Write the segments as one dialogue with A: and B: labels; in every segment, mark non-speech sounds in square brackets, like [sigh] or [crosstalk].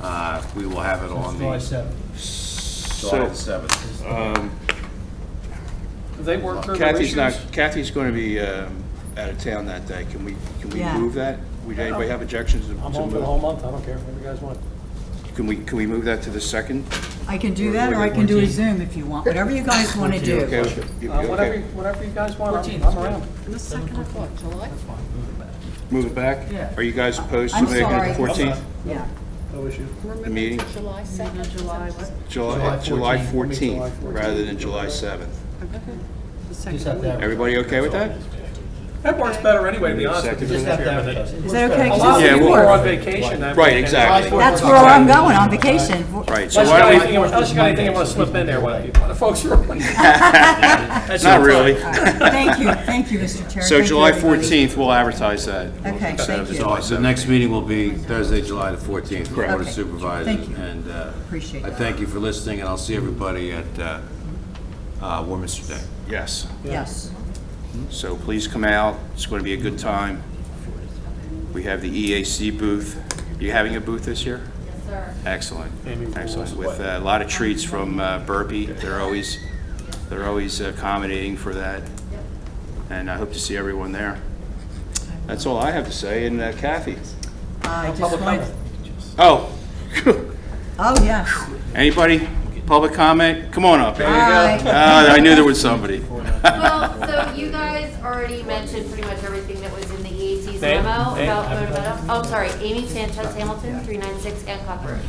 A: Uh, we will have
B: Oh,
A: it on
C: July
A: the
C: 7th.
A: July
B: So,
A: the seventh.
B: um,
C: Have they worked through their issues?
B: Kathy's not, Kathy's going to be um, out of town that day. Can we, can we
D: Yeah.
B: move that? Would anybody have objections to to
C: I'm home for the whole
B: move?
C: month, I don't care, whatever you guys want.
B: Can we, can we move that to the second?
D: I can do that, or I can do a Zoom if you want, whatever you guys want to
B: You okay
D: do.
B: with- you-
C: Uh,
B: you
C: Whatever,
B: okay?
C: whatever you guys want, I'm I'm around.
E: The second of what, July?
B: Move it back?
D: Yeah.
B: Are you guys opposed to
D: I'm
B: making it
D: sorry.
B: the 14th?
D: Yeah,
C: No issue.
E: We're
B: meeting?
E: moving to July 2nd. July what?
B: July, July 14th, rather than July 7th.
E: The
C: Just have
E: second
C: to
E: week.
C: have-
B: Everybody okay with that?
C: That works better anyway, to be honest with you.
B: Second.
C: Just have to have it.
D: is that okay?
C: A
D: 'Cause
C: lot of
B: Yeah,
C: people
B: well-
C: are on vacation that
B: Right,
C: weekend.
B: exactly.
D: That's where I'm going, on vacation.
B: Right, so
C: Unless you
B: why
C: got
B: don't
C: anything, unless you got anything you want to slip in there, [laughs] what, what the folks are.
B: we, [laughs] not really.
D: Thank you, thank you, Mr. Chair.
B: So
D: Thank you,
B: July
D: everybody.
B: 14th, we'll advertise that.
D: Okay,
B: Instead of
D: thank you.
B: July
D: Sorry,
A: The
B: 7th.
A: next meeting will be Thursday, July the fourteenth, with the Board of
D: Okay.
A: Supervisors.
D: Thank you.
A: And uh,
D: Appreciate
A: I
D: that.
A: thank you for listening, and I'll see everybody at uh, uh, Warminster Day.
B: Yes.
D: Yes.
B: So please come out. It's going to be a good time. We have the EAC booth. You having a booth this year? Yes, sir. Excellent, excellent. With uh, a lot of treats from uh, Burpee. They're always, they're always uh, accommodating for that. And I hope to see everyone there. That's all I have to say. And uh, Kathy?
D: I just
C: public
D: wanted-
C: comment.
B: Oh,
D: Oh, yes.
B: anybody? Public comment? Come on up.
D: Hi.
B: Ah, I knew there was somebody.
F: Well, so you guys already mentioned pretty much everything that was in the EAC's
C: Ma'am,
F: memo
C: ma'am,
F: about
C: I'm-
F: Monomoto. Oh, I'm sorry, Amy Sanchez Hamilton, 396 Hancock Road.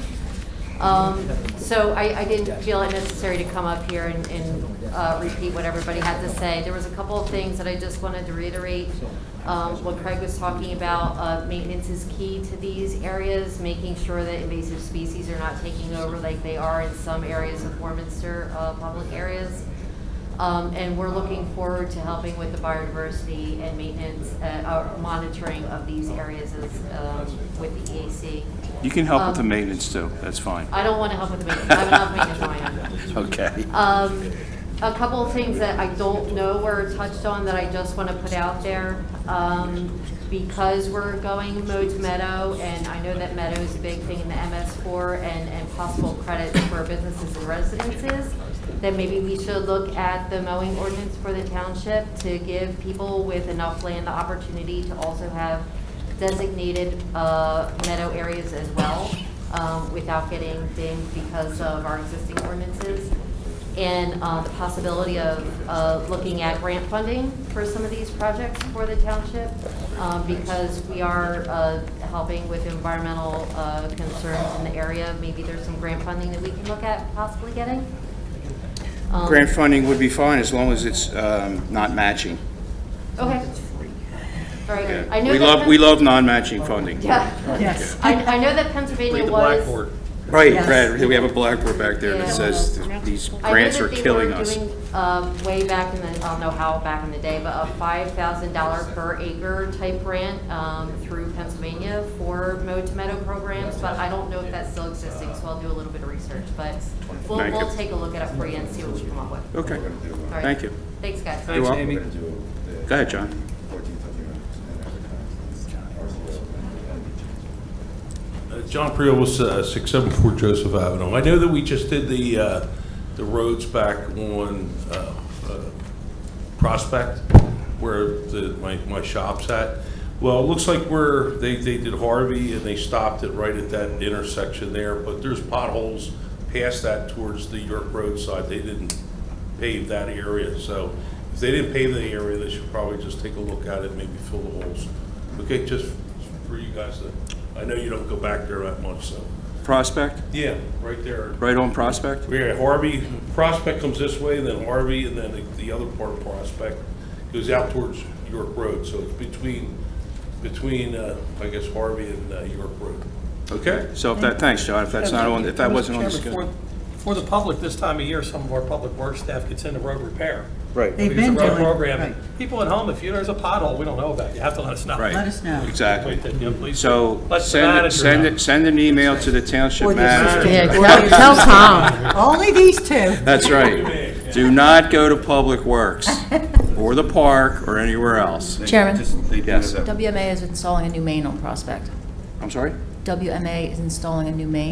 F: Um, So I, I didn't feel it necessary to come up here and, and uh, repeat what everybody had to say. There was a couple of things that I just wanted to reiterate. Um, What Craig was talking about, uh, maintenance is key to these areas, making sure that invasive species are not taking over like they are in some areas of Warminster, uh, public areas. Um, and we're looking forward to helping with the biodiversity and maintenance, uh, uh, monitoring of these areas as, um, with the EAC.
B: You can help with the maintenance too. That's fine.
F: I don't want to help with the maintenance, I'm not maintenance on it.
B: Okay.
F: Um, a couple of things that I don't know were touched on that I just want to put out there. Um, because we're going mode to meadow, and I know that meadow is a big thing in the MS4 and, and possible credits for businesses and residences, that maybe we should look at the mowing ordinance for the township to give people with enough land the opportunity to also have designated uh, meadow areas as well, um, without getting dinged because of our existing ordinances and uh, the possibility of uh, looking at grant funding for some of these projects for the township, um, because we are uh, helping with environmental uh, concerns in the area. Maybe there's some grant funding that we can look at possibly getting. Um,
B: Grant funding would be fine as long as it's um, not matching.
F: Okay. All right. I know
B: We
F: that
B: love, we
F: Pen-
B: love non-matching funding.
F: Yeah. [laughs]
D: Yes.
F: I I know that Pennsylvania was.
B: Right,
D: Yes.
B: Brad, we have a blackboard back there that
F: Yeah.
B: says th- these grants are killing us.
F: I know that they were doing, um, way back in the, I don't know how back in the day, but a five thousand dollar per acre type grant, um, through Pennsylvania for mowed to meadow programs, but I don't know if that's still existing, so I'll do a little bit of research, but we'll,
B: Thank you.
F: we'll take a look at it for you and see what we come up with. All
B: Okay,
F: right.
B: thank you.
F: Thanks, guys.
B: You're welcome.
C: Amy.
B: Go ahead, John.
G: Uh, John Priol, uh 674 Joseph Avenue. I know that we just did the, uh, the roads back on uh, uh, Prospect, where the, my, my shop's at. Well, it looks like we're, they, they did Harvey, and they stopped it right at that intersection there, but there's potholes past that towards the York Road side. They didn't pave that area, so if they didn't pave the area, they should probably just take a look at it, maybe fill the holes. Okay, just for you guys to, I know you don't go back there that much, so.
B: Prospect,
G: Yeah, right there.
B: right on Prospect?
G: Yeah, Harvey, Prospect comes this way, then Harvey, and then the- the other part of Prospect goes out towards York Road, so it's between, between, uh, I guess Harvey and uh, York Road. Okay?
B: So if that, thanks, John, if that's not on, if that
C: Mr.
B: wasn't on the
C: Chairman,
B: schedule.
C: For for the public, this time of year, some of our public works staff gets into road repair.
B: Right,
D: They've
C: Because
D: been
C: of road
D: doing-
C: programming.
D: right.
C: People at home, if you, there's a pothole we don't know about, you have to let us know.
D: Let
B: right,
D: us know.
B: exactly.
C: That, you know, please-
B: So
C: Let the
B: send,
C: manager
B: it- send,
C: know.
B: it- send an email to the township
D: Or the
B: manager.
E: Yeah, tell- tell Tom.
D: Only these two.
B: That's right. Do not go to Public Works, or the park, or anywhere else.
E: Chairman.
B: Yes.
E: WMA is installing a new main on Prospect.
B: I'm sorry?
E: WMA is installing a new main